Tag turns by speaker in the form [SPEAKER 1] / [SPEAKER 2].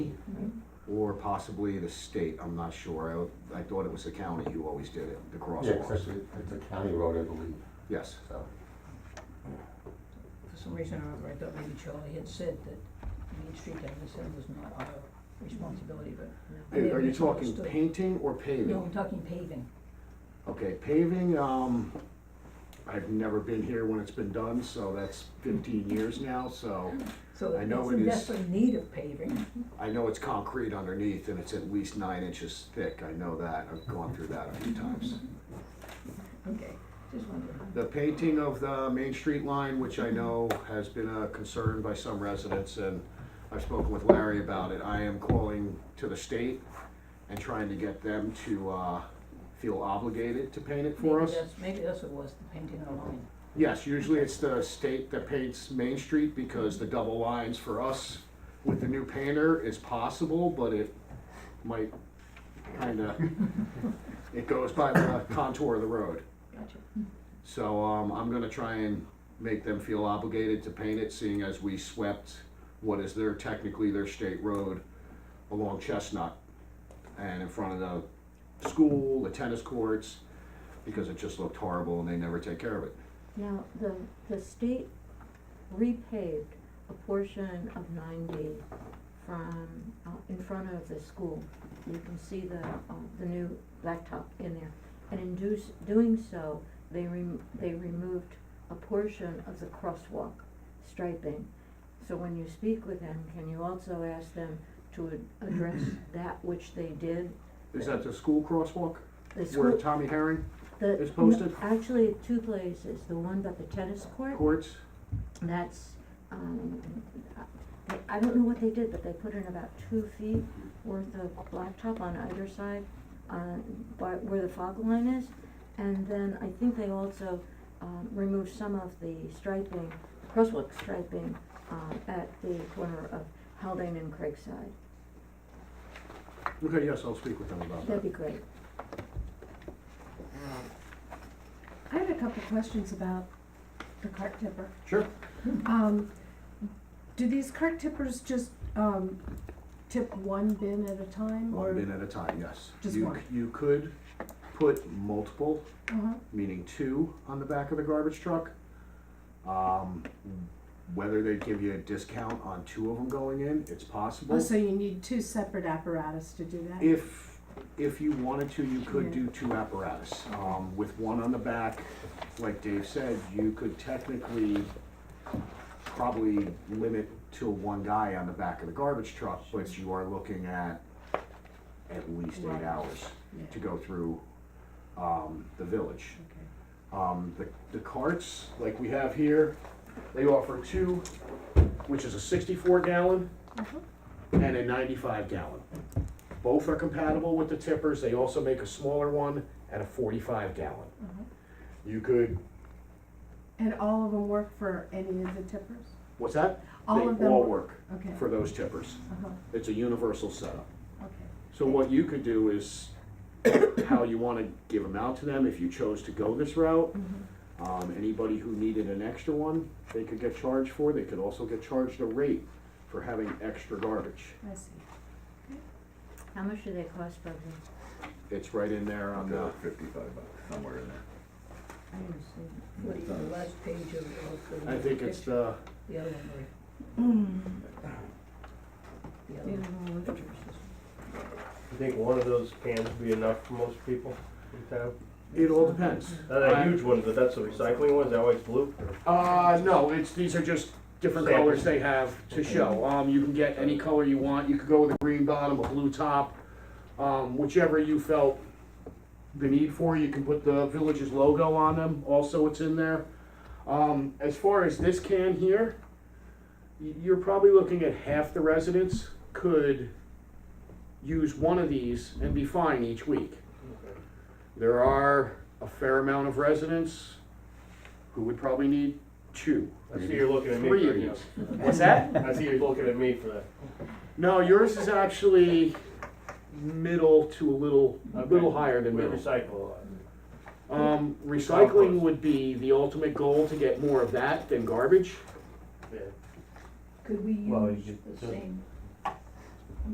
[SPEAKER 1] or possibly the state, I'm not sure. I, I thought it was the county who always did it, the
[SPEAKER 2] Yeah, 'cause
[SPEAKER 1] crosswalks.
[SPEAKER 2] that's a- it's a county road, I believe,
[SPEAKER 1] Yes,
[SPEAKER 2] so.
[SPEAKER 3] For some reason or other, I thought maybe Charlie had said that Main Street, as I said, was not our responsibility, but. I may have
[SPEAKER 1] Are you talking
[SPEAKER 3] misunderstood.
[SPEAKER 1] painting or
[SPEAKER 3] No,
[SPEAKER 1] paving?
[SPEAKER 3] I'm talking paving.
[SPEAKER 1] Okay, paving, um, I've never been here when it's been done, so that's fifteen years now, so
[SPEAKER 3] So
[SPEAKER 1] I
[SPEAKER 3] it's
[SPEAKER 1] know
[SPEAKER 3] in
[SPEAKER 1] it is-
[SPEAKER 3] desperate need of paving.
[SPEAKER 1] I know it's concrete underneath and it's at least nine inches thick. I know that. I've gone through that a few times.
[SPEAKER 3] Okay, just wondering.
[SPEAKER 1] The painting of the Main Street line, which I know has been a concern by some residents, and I've spoken with Larry about it, I am calling to the state and trying to get them to, uh, feel obligated to paint it for
[SPEAKER 3] Maybe
[SPEAKER 1] us.
[SPEAKER 3] that's- Maybe that's what it was, the painting on the line.
[SPEAKER 1] Yes, usually it's the state that paints Main Street, because the double lines for us with the new painter is possible, but it might kinda, it goes by the contour of the road.
[SPEAKER 3] Gotcha.
[SPEAKER 1] So um, I'm gonna try and make them feel obligated to paint it, seeing as we swept what is their, technically their state road along Chestnut and in front of the school, the tennis courts, because it just looked horrible and they never take care of it.
[SPEAKER 4] Now, the, the state repaved a portion of ninety from, uh, in front of the school. You can see the, um, the new blacktop in there. And in do, doing so, they rem- they removed a portion of the crosswalk striping. So when you speak with them, can you also ask them to ad- address that which they did?
[SPEAKER 1] Is that the school crosswalk
[SPEAKER 4] The
[SPEAKER 1] where
[SPEAKER 4] school,
[SPEAKER 1] Tommy Herring
[SPEAKER 4] the.
[SPEAKER 1] is posted?
[SPEAKER 4] Actually, two places, the one by the tennis court
[SPEAKER 1] courts?
[SPEAKER 4] That's, um, I- I don't know what they did, but they put in about two feet worth of blacktop on either side, on, by, where the fog line is. And then I think they also, um, removed some of the striping, crosswalk striping, um, at the corner of Haldane and Craigside.
[SPEAKER 1] Okay, yes, I'll speak with them about
[SPEAKER 4] That'd
[SPEAKER 1] that.
[SPEAKER 4] be great.
[SPEAKER 5] I had a couple questions about the cart tipper.
[SPEAKER 1] Sure.
[SPEAKER 5] Um, do these cart tippers just, um, tip one bin at a time or?
[SPEAKER 1] One bin at a time, yes.
[SPEAKER 5] Just
[SPEAKER 1] You c-
[SPEAKER 5] one.
[SPEAKER 1] You could put multiple
[SPEAKER 5] Uh-huh,
[SPEAKER 1] meaning two on the back of the garbage truck. Um, whether they give you a discount on two of them going in, it's
[SPEAKER 5] oh,
[SPEAKER 1] possible.
[SPEAKER 5] so you need two separate apparatus to do that?
[SPEAKER 1] If, if you wanted to, you could do two apparatus, um, with one on the back, like Dave said, you could technically probably limit to one guy on the back of the garbage truck, but you are looking at at least eight
[SPEAKER 5] Right.
[SPEAKER 1] hours
[SPEAKER 5] Yeah,
[SPEAKER 1] to go through, um, the village.
[SPEAKER 5] okay.
[SPEAKER 1] Um, the, the carts, like we have here, they offer two, which is a sixty-four gallon
[SPEAKER 5] Mhm.
[SPEAKER 1] and a ninety-five gallon. Both are compatible with the tippers, they also make a smaller one and a forty-five gallon.
[SPEAKER 5] Mhm.
[SPEAKER 1] You could,
[SPEAKER 5] And all of them work for any of the tippers?
[SPEAKER 1] what's that?
[SPEAKER 5] All of
[SPEAKER 1] They
[SPEAKER 5] them?
[SPEAKER 1] all work
[SPEAKER 5] Okay,
[SPEAKER 1] for those tippers.
[SPEAKER 5] uh-huh,
[SPEAKER 1] It's a universal setup.
[SPEAKER 5] okay.
[SPEAKER 1] So what you could do is how you wanna give them out to them, if you chose to go this route.
[SPEAKER 5] Mhm.
[SPEAKER 1] Um, anybody who needed an extra one, they could get charged for, they could also get charged a rate for having extra garbage.
[SPEAKER 5] I see.
[SPEAKER 4] How much do they cost, Bugsy?
[SPEAKER 1] It's right in there on the,
[SPEAKER 6] Fifty-five bucks, somewhere in there.
[SPEAKER 3] I didn't see. What is the last page of, of the.
[SPEAKER 1] I think it's the,
[SPEAKER 3] The other one, Marie. Hmm. The other
[SPEAKER 5] The
[SPEAKER 3] one.
[SPEAKER 5] other one works.
[SPEAKER 7] You think one of those cans would be enough for most people in town?
[SPEAKER 1] it all depends.
[SPEAKER 7] Not a huge one, but that's a recycling one, is that why it's blue?
[SPEAKER 1] Uh, no, it's, these are just different
[SPEAKER 7] Samples.
[SPEAKER 1] colors they have to show. Um, you can get any color you want, you could go with a green bottom, a blue top, um, whichever you felt the need for, you can put the village's logo on them, also it's in there. Um, as far as this can here, y- you're probably looking at half the residents could use one of these and be fine each week. There are a fair amount of residents who would probably need two.
[SPEAKER 7] I see you're looking at me
[SPEAKER 1] Three
[SPEAKER 7] for
[SPEAKER 1] of
[SPEAKER 7] that.
[SPEAKER 1] these. What's that?
[SPEAKER 7] I see you're looking at me for that.
[SPEAKER 1] No, yours is actually middle to a little, a little
[SPEAKER 7] Okay.
[SPEAKER 1] higher than
[SPEAKER 7] We
[SPEAKER 1] middle.
[SPEAKER 7] recycle a lot.
[SPEAKER 1] Um, recycling would be the ultimate goal to get more of that than garbage.
[SPEAKER 7] Yeah.
[SPEAKER 3] Could we
[SPEAKER 7] Well, you
[SPEAKER 3] use
[SPEAKER 7] could
[SPEAKER 3] the
[SPEAKER 7] just-
[SPEAKER 3] same